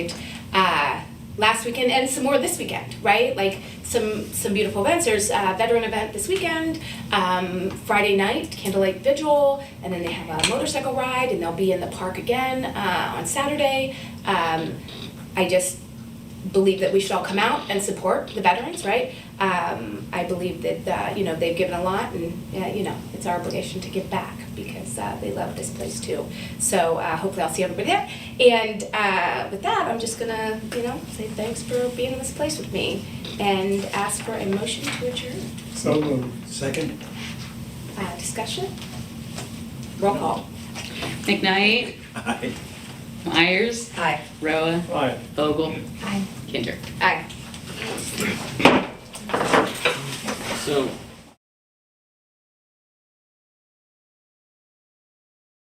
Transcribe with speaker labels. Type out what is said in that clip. Speaker 1: uh, last weekend and some more this weekend, right? Like some some beautiful events. There's a veteran event this weekend, um, Friday night candlelight vigil, and then they have a motorcycle ride, and they'll be in the park again uh, on Saturday. Um, I just believe that we should all come out and support the veterans, right? Um, I believe that uh, you know they've given a lot, and uh, you know it's our obligation to give back because uh, they love this place too. So uh, hopefully I'll see everybody there. And uh, with that, I'm just gonna you know say thanks for being in this place with me, and ask for a motion to adjourn.
Speaker 2: So moved.
Speaker 3: Second?
Speaker 1: Uh, discussion. Roll call.
Speaker 4: McKnight,
Speaker 3: Aye.
Speaker 4: Myers,
Speaker 1: Aye.
Speaker 4: Roa,
Speaker 2: Aye.
Speaker 4: Vogel,
Speaker 1: Aye.
Speaker 4: Kinder.
Speaker 1: Aye.
Speaker 5: So